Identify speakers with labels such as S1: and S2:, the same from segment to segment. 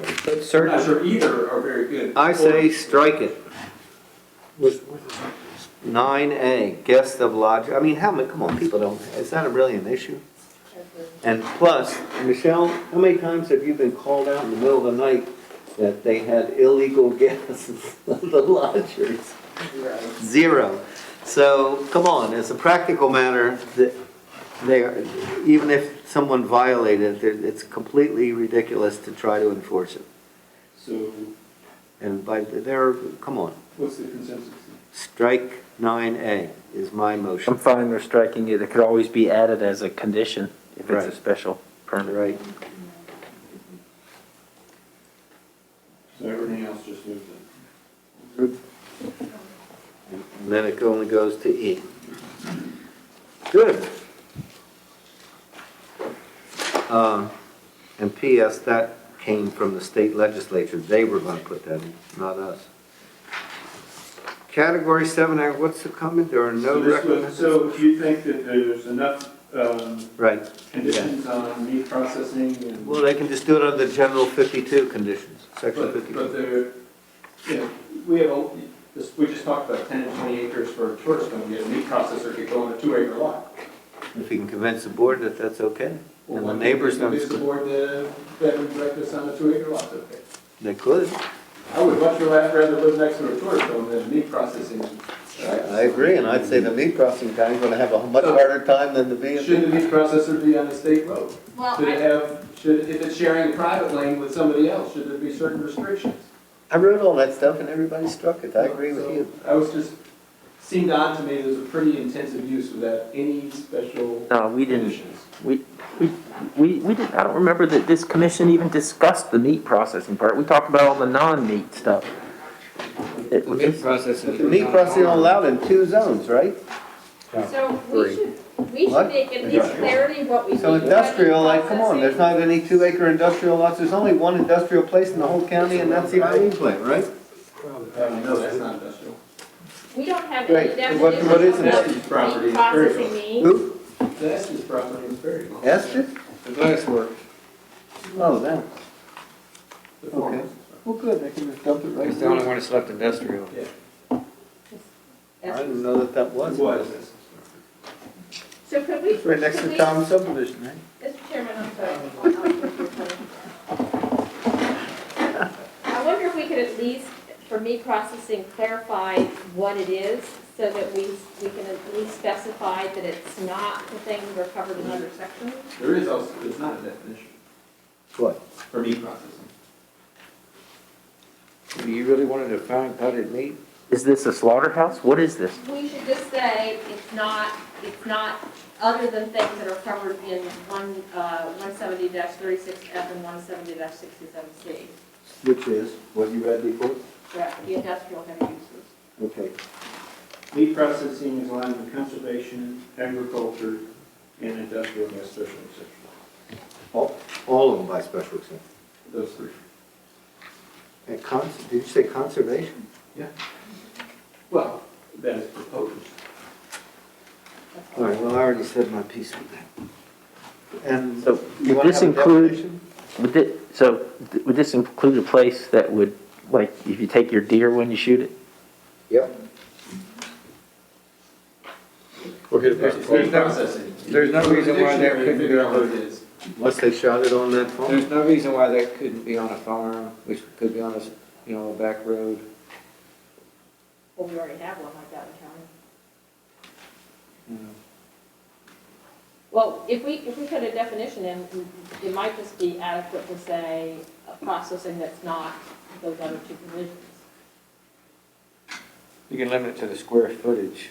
S1: But
S2: I'm not
S1: certain,
S2: sure either are very good.
S1: I say strike it.
S3: With-
S1: Nine A, guest of lodger, I mean, how many, come on, people don't, it's not a brilliant issue. And plus, Michelle, how many times have you been called out in the middle of the night that they had illegal guests of the lodgers? Zero. So, come on, as a practical matter, th- they, are- even if someone violated, it, it's completely ridiculous to try to enforce it.
S2: So
S1: And by, there, come on,
S2: what's the consensus?
S1: strike nine A is my
S4: I'm
S1: motion.
S4: fine with striking it. It could always be added as a condition if it's
S1: Right.
S4: a special permit.
S1: Right,
S2: So everything else just moved in.
S1: and then it only goes to E. Good. Um, And PS, that came from the state legislature, they were gonna put that in, not us. Category seven, uh, what's the comment, there are no
S2: So this was-
S1: recommendations?
S2: So if you think that there's enough um,
S1: Right,
S2: conditions on meat processing and.
S1: well, they can just do it under the general fifty-two conditions, section
S2: But, but
S1: fifty-two.
S2: there, you know, we have, a- this, we just talked about ten and twenty acres for a tourist home, yet a meat processor could go on a two acre lot.
S1: If you can convince the board that that's okay, and the
S2: Well,
S1: neighbors
S2: why can't you Convince the
S1: don't,
S2: board uh, to bed and breakfast on a two acre lot, okay?
S1: they could.
S2: I would much rather rather live next to a tourist home than a meat processing.
S1: I agree, and I'd say the meat processing guy's gonna have a much harder time than the
S2: Should the
S1: VFW.
S2: meat processor be on a state road?
S5: Well,
S2: Should it
S5: I,
S2: have, should, if it's sharing a private lane with somebody else, should there be certain restrictions?
S1: I wrote all that stuff and everybody struck it, I agree with
S2: So,
S1: you.
S2: I was just, seemed odd to me, there's a pretty intensive use without any special
S4: No, we didn't,
S2: conditions.
S4: we, we, we, we didn't, I don't remember that this commission even discussed the meat processing part. We talked about all the non-meat stuff. It-
S6: The meat processing.
S1: The meat processing allowed in two zones, right?
S5: so we should, we
S1: What?
S5: should make at least clarity what we.
S1: So
S5: mean by
S1: industrial, like, come on, there's
S5: processing.
S1: not any two acre industrial lots, there's only one industrial place in the whole county and that's the Irene plant, right?
S2: No, that's not industrial.
S5: We don't have
S1: Right.
S5: any
S1: What-
S5: definition
S1: what is
S5: of
S1: it?
S5: what
S2: Estes property
S5: meat
S2: is very
S5: processing
S2: close.
S5: means.
S1: Who?
S2: That's his property in Berryville.
S1: Esther?
S6: The glass work.
S1: Oh, that,
S2: The former.
S1: well, good, they can just dump it right
S6: It's the
S1: down.
S6: only one that's left industrial.
S1: I didn't know that that was.
S2: What is this?
S5: So could we?
S1: It's Right next
S5: could
S1: to
S5: we-
S1: Tom subdivision, right?
S5: Mr. Chairman, I'm sorry. I wonder if we could at least, for meat processing, clarify what it is so that we, we can at least specify that it's not the things that are covered in other sections?
S2: There is also, it's not a definition
S1: What?
S2: for meat processing.
S1: Do you really want to define potted meat?
S4: Is this a slaughterhouse? What is this?
S5: We should just say it's not, it's not other than things that are covered in one, uh, one seventy thirty-six F and one seventy sixty-seven C,
S1: Which is, what you read before?
S5: the the industrial heavy uses.
S1: Okay.
S2: Meat processing is aligned with conservation, agriculture, and industrial, and special exception.
S1: All, all of them by special exception.
S2: Those three.
S1: And cons, did you say conservation?
S2: Well, that is proposed.
S1: All right, well, I already said my piece on that. And
S4: So
S1: you
S4: would
S1: want to
S4: this
S1: have a
S4: include,
S1: definition?
S4: would thi- so th- would this include a place that would, like, if you take your deer when you shoot it?
S1: Yep.
S2: It's meat processing.
S6: There's no reason why there
S2: Dictionary,
S6: couldn't be
S2: figure out what it
S6: on,
S2: is.
S1: Unless they shot it on that farm.
S6: there's no reason why that couldn't be on a farm, which could be on a, s- you know, a back road.
S5: Well, we already have one like that in county.
S6: you know.
S5: Well, if we, if we put a definition in, it might just be adequate to say uh, processing that's not those other two provisions.
S6: You can limit it to the square footage.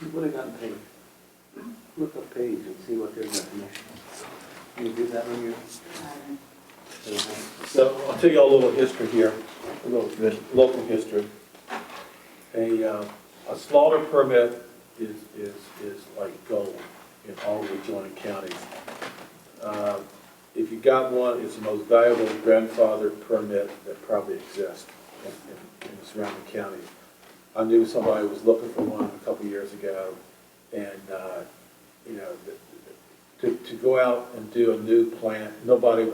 S1: You would have gotten paid. Look up page and see what their definition is. You do that on your?
S7: So I'll tell you all a little history here, a little local history. A, uh, a slaughter permit is, is, is like gold in all the adjoining counties. Uh, If you got one, it's the most valuable grandfather permit that probably exists in, in- in the surrounding counties. I knew somebody was looking for one a couple years ago, and, uh, you know, th- th- to, to go out and do a new plant, nobody